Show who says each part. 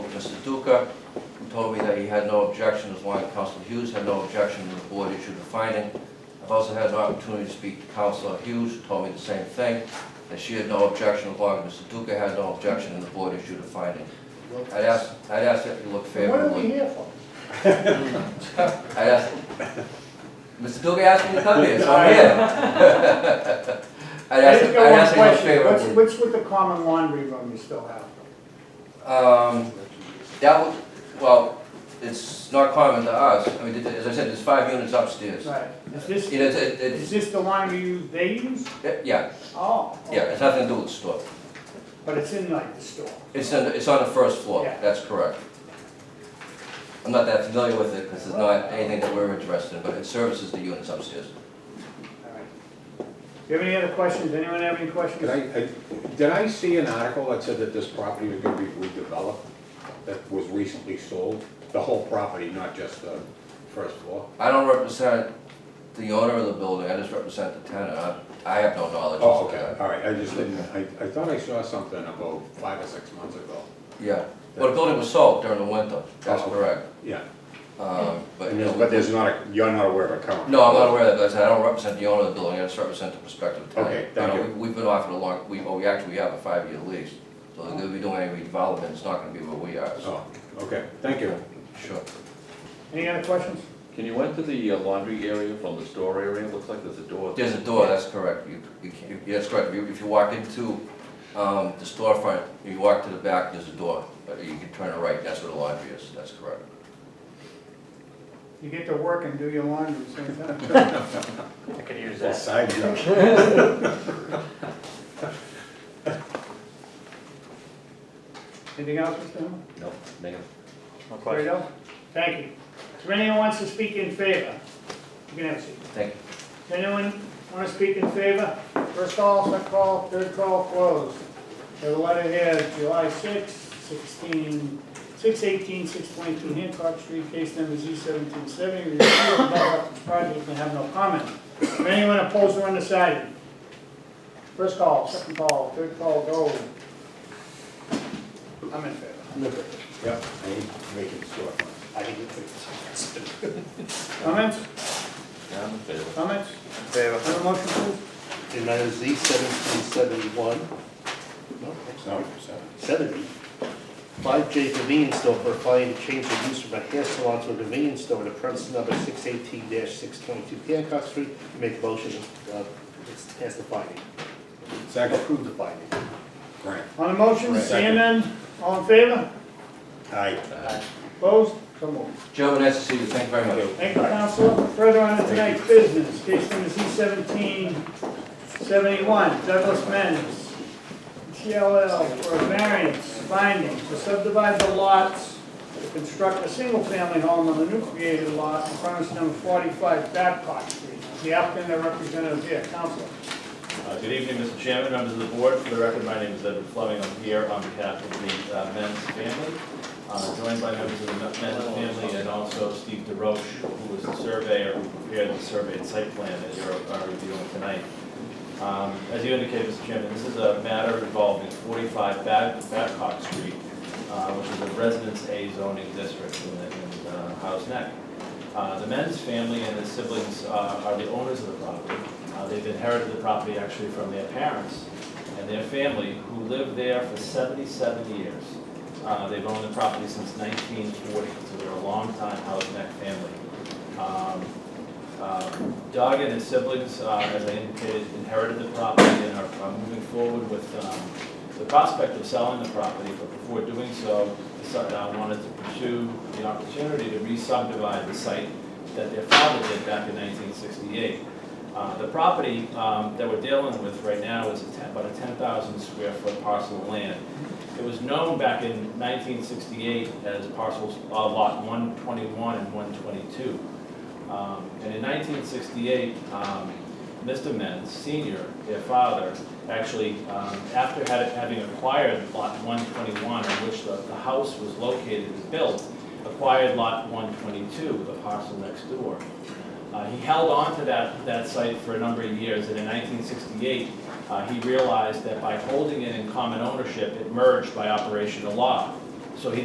Speaker 1: Duca told me that he had no objection, as long as Council Hughes had no objection, and the board issued a finding. I've also had an opportunity to speak to Council Hughes, who told me the same thing, that she had no objection, as long as Mr. Duca had no objection, and the board issued a finding. I'd ask, I'd ask that you look
Speaker 2: What are we
Speaker 1: favorably.
Speaker 2: here for?
Speaker 1: I'd ask, Mr. Duca asked me to come here, so I'm here. I'd
Speaker 2: I
Speaker 1: ask,
Speaker 2: just
Speaker 1: I'd
Speaker 2: got one
Speaker 1: ask that you look
Speaker 2: question. What's,
Speaker 1: favorably.
Speaker 2: what's with the common laundry room you still have?
Speaker 1: Um, That would, well, it's not common to us, I mean, as I said, there's five units upstairs.
Speaker 2: Right, is this,
Speaker 1: It is, it,
Speaker 2: is this the laundry you, they use?
Speaker 1: it- yeah,
Speaker 2: Oh. okay.
Speaker 1: yeah, it's nothing to do with the store.
Speaker 2: But it's in like the store.
Speaker 1: It's on, it's on the first floor,
Speaker 2: Yeah.
Speaker 1: that's correct. I'm not that familiar with it, because it's not anything that we're interested in, but it services the units upstairs.
Speaker 2: All right. Do you have any other questions? Anyone have any questions?
Speaker 3: Did I, I- did I see an article that said that this property was gonna be redeveloped, that was recently sold? The whole property, not just the first floor?
Speaker 1: I don't represent the owner of the building, I just represent the tenant, I, I have no knowledge of
Speaker 3: Oh, okay,
Speaker 1: that.
Speaker 3: all right, I just didn't, I, I thought I saw something about five or six months ago.
Speaker 1: Yeah, well, the building was sold during the winter, that's
Speaker 3: Oh, okay.
Speaker 1: correct.
Speaker 3: Yeah,
Speaker 1: Um, but,
Speaker 3: and
Speaker 1: you know,
Speaker 3: there's- but there's not, a you're not aware of a current?
Speaker 1: No, I'm not aware of that, but I said, I don't represent the owner of the building, I just represent the prospective tenant.
Speaker 3: Okay, thank
Speaker 1: I know
Speaker 3: you.
Speaker 1: we- We've been offered a long, we, oh, we actually have a five-year lease, so they're gonna be doing any redevelopment, it's not gonna be where we are, so,
Speaker 3: Oh, okay, thank you.
Speaker 1: sure.
Speaker 2: Any other questions?
Speaker 4: Can you enter the uh, laundry area from the store area? Looks like there's a door.
Speaker 1: There's a door, that's correct, you, you can't, that's correct, if you, if you walk into, um, the storefront, you walk to the back, there's a door, but you can turn it right, that's where the laundry is, that's correct.
Speaker 2: You get to work and do your laundry at the same time.
Speaker 5: I could use
Speaker 3: The
Speaker 5: that.
Speaker 3: Side job.
Speaker 2: Anything else, Mr. Hill?
Speaker 4: No, negative.
Speaker 5: No question.
Speaker 2: Fredo? Thank you. Is there anyone wants to speak in favor? You can have a seat.
Speaker 1: Thank you.
Speaker 2: Anyone want to speak in favor? First call, second call, third call closed. There's a letter here, July 6, 16, 618, 622 Hancock Street, case number Z1770. Review of Bellhop's project and have no comment. Is there Anyone opposed or undecided? First call, second call, third call, go. I'm in favor.
Speaker 3: Yep, I need to make it storefront.
Speaker 5: I think it's.
Speaker 2: Comments?
Speaker 4: Yeah, I'm in favor.
Speaker 2: Comments?
Speaker 5: Favor.
Speaker 2: On the motion, please?
Speaker 5: And that is the seventeen seventy-one. No, that's
Speaker 3: No,
Speaker 5: not
Speaker 3: so-
Speaker 5: seventy. Five J convenience store for applying to change the use from a hair salon to a convenience store at a premise number six eighteen six twenty-two Hancock Street. Make a motion, uh, as the finding.
Speaker 3: Second,
Speaker 5: Approve the finding.
Speaker 3: Grant,
Speaker 2: On the motion,
Speaker 3: Right.
Speaker 2: seeing none, all in favor?
Speaker 3: aye.
Speaker 2: Opposed? So moved.
Speaker 1: Gentlemen, nice to see you, thank you very much.
Speaker 2: Thank you, Counselor. Further on to tonight's business, case number Z seventeen seventy-one, Douglas Men's, TLL, for a variance finding to subdivide the lots to construct a single-family home on the new created lot on premise number forty-five Babcock Street. The applicant and representative here, Counselor.
Speaker 6: Uh, Good evening, Mr. Chairman, members of the board. For the record, my name is Edward Fleming. I'm here on behalf of the uh, Men's family, uh, joined by members of the Men's family and also Steve DeRoche, who was the surveyor who prepared the survey and site plan that you're uh, reviewing tonight. Um, As you indicated, Mr. Chairman, this is a matter involving 45 Bab- Babcock Street, uh, which is a residence A zoning district in the- in uh, Howes Neck. Uh, The Men's family and the siblings uh, are the owners of the property. Uh, They've inherited the property actually from their parents and their family, who lived there for 77 years. Uh, They've owned the property since 1940, so they're a longtime Howes Neck family. Um, um, Doug and his siblings, uh, as I indicated, inherited the property and are are moving forward with um, the prospect of selling the property, but before doing so, decided I wanted to pursue the opportunity to re-subdivide the site that their father did back in 1968. Uh, The property um, that we're dealing with right now is a ten- about a 10,000 square foot parcel of land. It was known back in 1968 as parcels, uh, lot 121 and 122. Um, And in 1968, um, Mr. Menz Senior, their father, actually, um, after had- having acquired Lot 121, in which the the house was located and built, acquired Lot 122, the parcel next door. Uh, He held on to that, that site for a number of years, and in 1968, uh, he realized that by holding it in common ownership, it merged by operation of law. So he